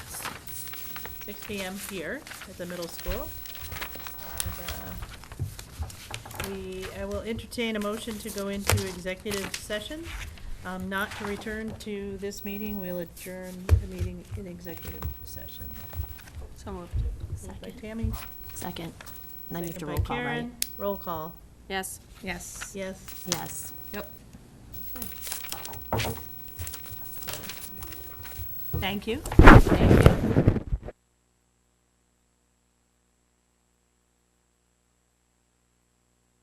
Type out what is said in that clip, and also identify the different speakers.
Speaker 1: six PM here at the middle school. And, uh, We, I will entertain a motion to go into executive session, um, not to return to this meeting. We'll adjourn the meeting in executive session.
Speaker 2: So moved.
Speaker 1: Moved by
Speaker 3: Second.
Speaker 1: Tammy.
Speaker 3: Second. Then you have
Speaker 1: second
Speaker 3: to
Speaker 1: by
Speaker 3: roll call, right?
Speaker 1: Karen. Roll call,
Speaker 2: Yes.
Speaker 4: Yes.
Speaker 1: yes.
Speaker 3: Yes.
Speaker 4: Yep.
Speaker 1: Thank you.
Speaker 3: Thank you.